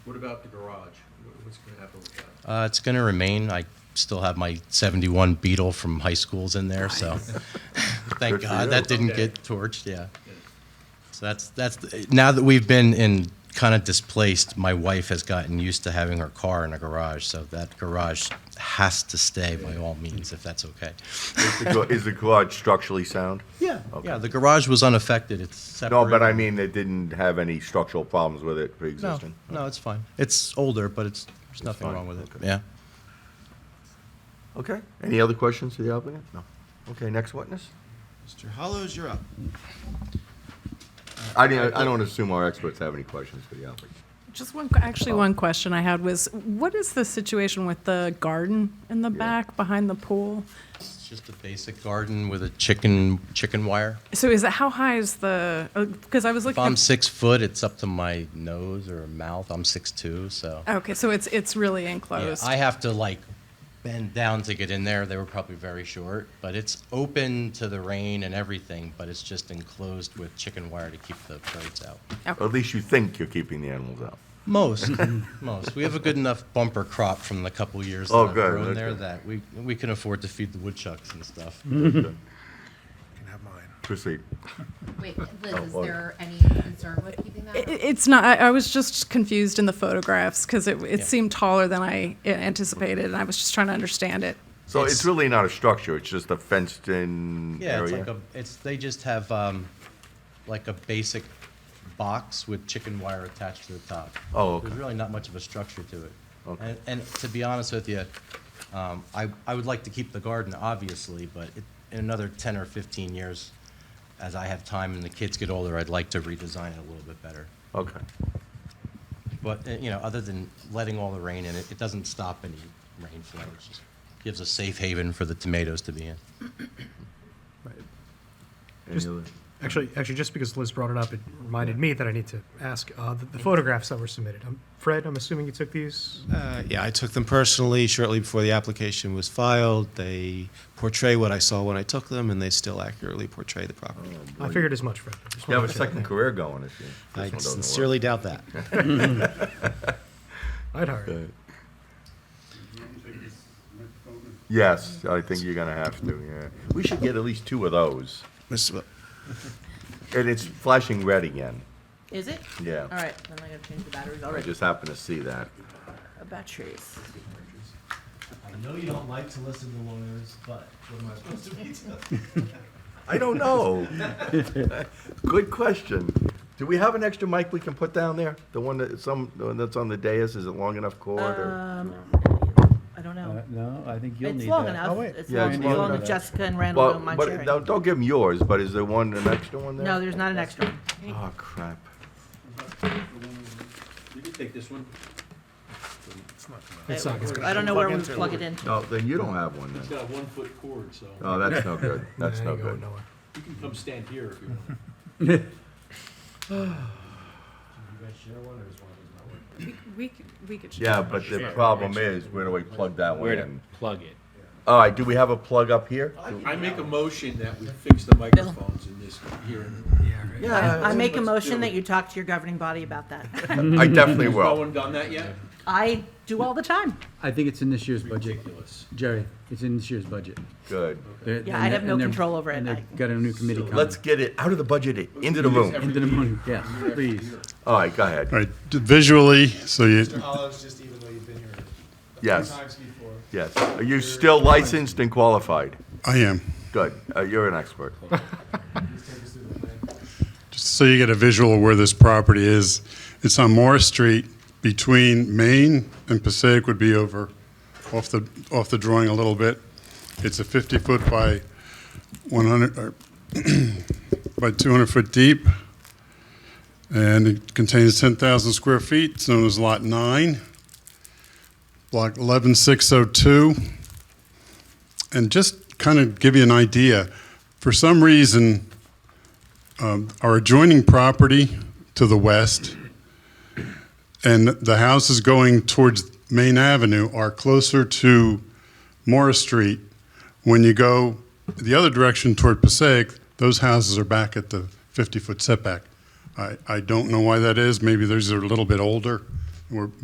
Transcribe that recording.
What about the garage? Wh- What's going to happen with that? Uh, it's going to remain. I still have my 71 Beetle from high schools in there, so Good for thank God you. that didn't Okay. get torched. Yeah. Yeah. So that's that's the- now that we've been in kind of displaced. My wife has gotten used to having her car in a garage, so that garage has to stay by all means, if that's okay. Is the gar- Is the garage structurally sound? Yeah. Okay. Yeah. The garage was unaffected. It's separate. No, but I mean, they didn't have any structural problems with it no, pre-existing? no, it's fine. It's older, but it's there's nothing fine, wrong with it. okay. Yeah. Okay. Any other questions to the applicant? No. Okay, next witness? Mr. Hollows, you're up. I didn't, I don't assume our experts have any questions for the applicant. Just one, Oh. actually, one question I had was, what is the situation with the garden in the Yeah. back behind the pool? It's just a basic garden with a chicken chicken wire. So is it, how high is the, because I was If looking. I'm at- six foot, it's up to my nose or mouth. I'm six two, so Okay, so it's, it's really yeah, enclosed. I have to like bend down to get in there. They were probably very short, but it's open to the rain and everything. But it's just enclosed with chicken wire to keep the birds out. Or At least you think you're keeping the animals out. Most, most. We have a good enough bumper crop from the couple years that Oh, I've good, grown there okay. that we we can afford to feed the woodchucks and stuff. Can have mine. Proceed. Wait, Liz, is well- there any concern with keeping that? I- It's not, I, I was just confused in the photographs because it, Yeah. it seemed taller than I anticipated and I was just trying to understand it. So it's It's- really not a structure, it's just a fenced-in area? Yeah, it's like a, it's, they just have, um, like a basic box with chicken wire attached to the top. Oh, okay. There's really not much of a structure to it. Okay. And, and to be honest with you, um, I, I would like to keep the garden, obviously, but it- in another ten or fifteen years, as I have time and the kids get older, I'd like to redesign it a little bit better. Okay. But, uh, you know, other than letting all the rain in, it, it doesn't stop any rainflow. It just gives a safe haven for the tomatoes to be in. Any Just- other- Actually, actually, just because Liz brought it up, it reminded me that I need to ask uh, the, the photographs that were submitted. Um, Fred, I'm assuming you took these. Uh, yeah, I took them personally shortly before the application was filed. They portray what I saw when I took them, and they still accurately portray the property. I figured as much, Fred. I just You have a wanted to check. second career going if you, this one I doesn't work. sincerely doubt that. I'd hire you. Yes, I think you're gonna have to, yeah. We should get at least two of those. Mr. Bo- And it's flashing red again. Is it? Yeah. All right, then I gotta change the batteries I already. just happened to see that. Uh, Batteries. I know you don't like to listen to lawyers, but what am I supposed to be doing? I don't know. Good question. Do we have an extra mic we can put down there? The one that, some, the one that's on the dais, is it long enough cord or? Um, I don't know. Uh, No, I think you'll need It's that. Oh, long enough. It's Yeah, long, it's it's long long enough. if Jessica and Randall Well, don't mind but, no, sharing. don't give them yours, but is there one, an extra one there? No, there's not an extra one. Oh, crap. You can take this one. It's not gonna- I don't know where we plug it into. No, then you don't have one It's then. got a one-foot cord, so Uh, Oh, that's no good. That's Nah, no you're going good. nowhere. you can come stand here if you want. We, we could, we could. Yeah, but the problem is, where do we plug that one in? plug it. All right, do we have a plug up here? I make a motion that we fix the microphones in this here. Yeah. I make a Let's do motion it. that you talk to your governing body about that. I definitely No will. one done that yet? I do all the time. I think it's in this year's budget, Ridiculous. Jerry, it's in this year's budget. Good. They're- and Yeah, I they're- have no and they're- control over it. And I- they've got a new committee coming. Let's get it out of the budget, into the room. Into the money, yes, please. All right, go ahead. All right, d- visually, so you, Hollows, Oh, just even though you've been here Yes, before, yes. Are you still licensed and qualified? I am, Good. Uh, you're an expert. just so you get a visual of where this property is, it's on Morris Street between Main and Passaic would be over, off the, off the drawing a little bit. It's a 50-foot by 100, or by 200-foot deep, and it contains 10,000 square feet, it's known as Lot 9, Block 11602. And just kind of give you an idea, for some reason, um, our adjoining property to the west and the houses going towards Main Avenue are closer to Morris Street. When you go the other direction toward Passaic, those houses are back at the 50-foot setback. I, I don't know why that is. Maybe those are a little bit older. We're,